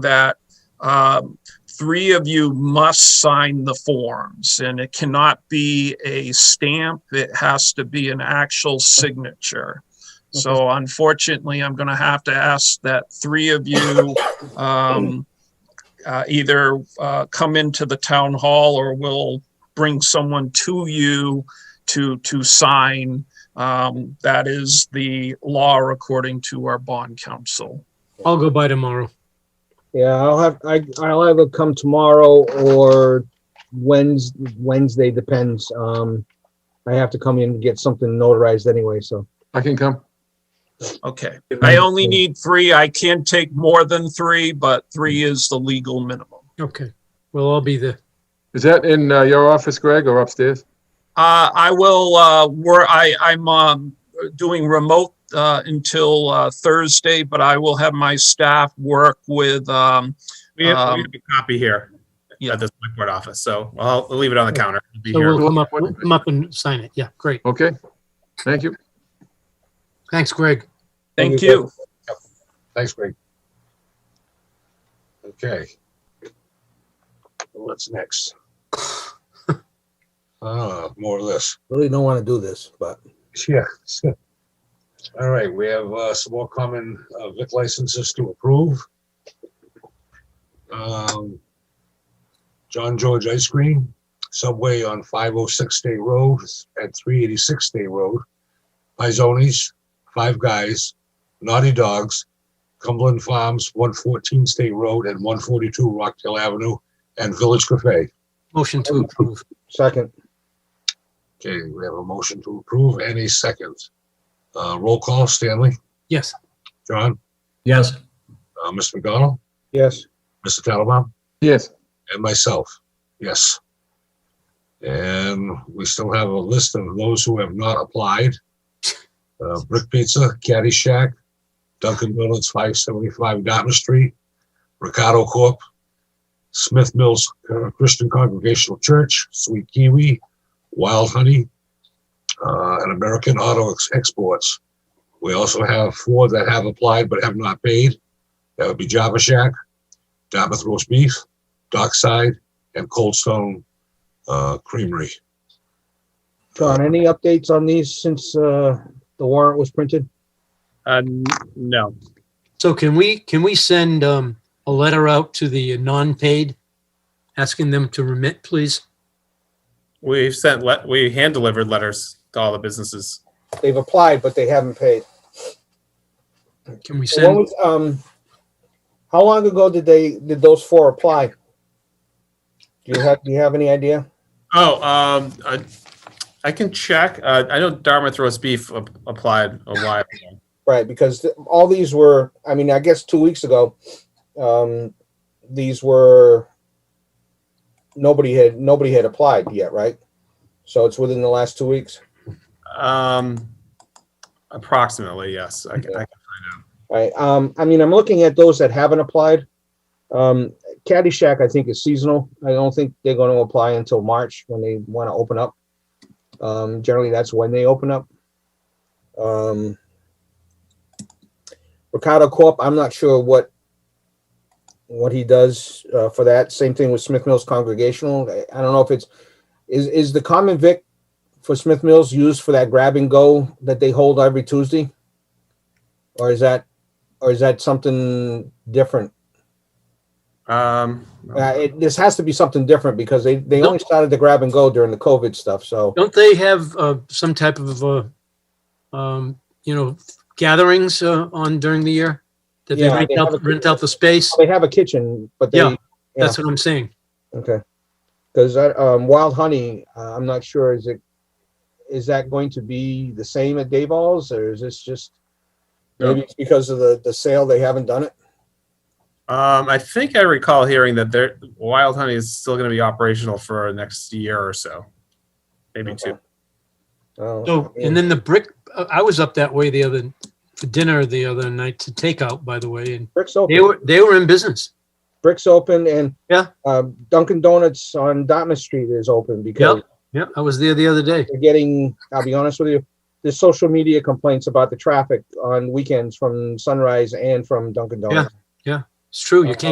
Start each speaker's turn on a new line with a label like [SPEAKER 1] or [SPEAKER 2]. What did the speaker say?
[SPEAKER 1] that um, three of you must sign the forms, and it cannot be a stamp. It has to be an actual signature. So unfortunately, I'm going to have to ask that three of you um, uh, either uh, come into the town hall or we'll bring someone to you to to sign. Um, that is the law according to our bond council.
[SPEAKER 2] I'll go by tomorrow.
[SPEAKER 3] Yeah, I'll have, I, I'll either come tomorrow or Wednes, Wednesday, depends. Um, I have to come in and get something notarized anyway, so.
[SPEAKER 4] I can come.
[SPEAKER 1] Okay. I only need three. I can take more than three, but three is the legal minimum.
[SPEAKER 2] Okay, we'll all be there.
[SPEAKER 4] Is that in uh, your office, Greg, or upstairs?
[SPEAKER 1] Uh, I will, uh, where I, I'm, um, doing remote, uh, until, uh, Thursday, but I will have my staff work with, um,
[SPEAKER 5] We have, we
[SPEAKER 1] Um,
[SPEAKER 5] have a copy here
[SPEAKER 1] Yeah.
[SPEAKER 5] at the select board office, so I'll I'll leave it on the counter. It'll be
[SPEAKER 2] So
[SPEAKER 5] here.
[SPEAKER 2] we'll come up, we'll come up and sign it. Yeah, great.
[SPEAKER 4] Okay. Thank you.
[SPEAKER 2] Thanks, Greg.
[SPEAKER 1] thank you.
[SPEAKER 6] Thanks, Greg. Okay. What's next? Ah, more of this.
[SPEAKER 3] Really don't want to do this, but.
[SPEAKER 6] Yeah. All right, we have uh, some more common uh, vic licenses to approve. Um, John George Ice Cream, Subway on 506 State Road at 386 State Road, Pizonis, Five Guys, Naughty Dogs, Cumberland Farms, 114 State Road and 142 Rockdale Avenue, and Village Cafe.
[SPEAKER 2] Motion to approve.
[SPEAKER 3] Second,
[SPEAKER 6] Okay, we have a motion to approve. Any seconds? Uh, roll call, Stanley,
[SPEAKER 2] Yes,
[SPEAKER 6] John,
[SPEAKER 7] Yes,
[SPEAKER 6] uh, Mr. McDonald,
[SPEAKER 3] yes,
[SPEAKER 6] Mr. Tattelbaum,
[SPEAKER 4] Yes.
[SPEAKER 6] and myself. Yes. And we still have a list of those who have not applied. Uh, Brick Pizza, Caddy Shack, Dunkin' Donuts, five seventy-five Dartmouth Street, Ricardo Corp., Smith Mills Christian Congregational Church, Sweet Kiwi, Wild Honey, uh, and American Auto Ex- Exports. We also have four that have applied but have not paid. That would be Java Shack, Dartmouth Roast Beef, Dockside, and Cold Stone uh, Creamery.
[SPEAKER 3] John, any updates on these since, uh, the warrant was printed?
[SPEAKER 5] Uh, n- no,
[SPEAKER 2] so can we, can we send, um, a letter out to the non-paid? Asking them to remit, please?
[SPEAKER 5] we've sent, let we hand delivered letters to all the businesses.
[SPEAKER 3] They've applied, but they haven't paid.
[SPEAKER 2] Can we
[SPEAKER 3] What
[SPEAKER 2] send,
[SPEAKER 3] was, um, how long ago did they, did those four apply? Do you have, do you have any idea?
[SPEAKER 5] Oh, um, I, I can check. Uh, I know Dartmouth roast beef ap- applied a while ago.
[SPEAKER 3] Right, because th- all these were, I mean, I guess two weeks ago, um, these were, nobody had, nobody had applied yet, right? So it's within the last two weeks.
[SPEAKER 5] Um, approximately, yes. I, I,
[SPEAKER 3] Right, um, I mean, I'm looking at those that haven't applied. Um, Caddyshack, I think is seasonal. I don't think they're gonna apply until March when they wanna open up. Um, generally, that's when they open up. Um, Ricardo Corp, I'm not sure what, what he does, uh, for that. Same thing with Smith Mills Congregational. I, I don't know if it's, is, is the common vic for Smith Mills used for that grab and go that they hold every Tuesday? Or is that, or is that something different?
[SPEAKER 5] um,
[SPEAKER 3] Uh, it, this has to be something different because they, they
[SPEAKER 2] No.
[SPEAKER 3] only started the grab and go during the COVID stuff, so.
[SPEAKER 2] don't they have, uh, some type of, uh, um, you know, gatherings, uh, on during the year? That they
[SPEAKER 3] Yeah,
[SPEAKER 2] rent
[SPEAKER 3] they have a-
[SPEAKER 2] out, rent out the space?
[SPEAKER 3] They have a kitchen, but
[SPEAKER 2] Yeah.
[SPEAKER 3] they, Yeah.
[SPEAKER 2] That's what I'm saying.
[SPEAKER 3] okay. Cause I, um, Wild Honey, uh, I'm not sure, is it, is that going to be the same at Dayball's or is this just? Maybe it's because of the, the sale, they haven't done it?
[SPEAKER 5] um, I think I recall hearing that there, Wild Honey is still going to be operational for next year or so, maybe two.
[SPEAKER 3] Oh,
[SPEAKER 2] So,
[SPEAKER 3] I mean,
[SPEAKER 2] and then the brick, uh, I was up that way the other, for dinner the other night to take out, by the way, and
[SPEAKER 3] Bricks
[SPEAKER 2] they
[SPEAKER 3] open,
[SPEAKER 2] were, they were in business.
[SPEAKER 3] Bricks open and.
[SPEAKER 2] Yeah.
[SPEAKER 3] Um, Dunkin' Donuts on Dartmouth Street is open because
[SPEAKER 2] Yep, yep, I was there the other day.
[SPEAKER 3] we're getting, I'll be honest with you, the social media complaints about the traffic on weekends from Sunrise and from Dunkin' Donuts.
[SPEAKER 2] It's true, you can't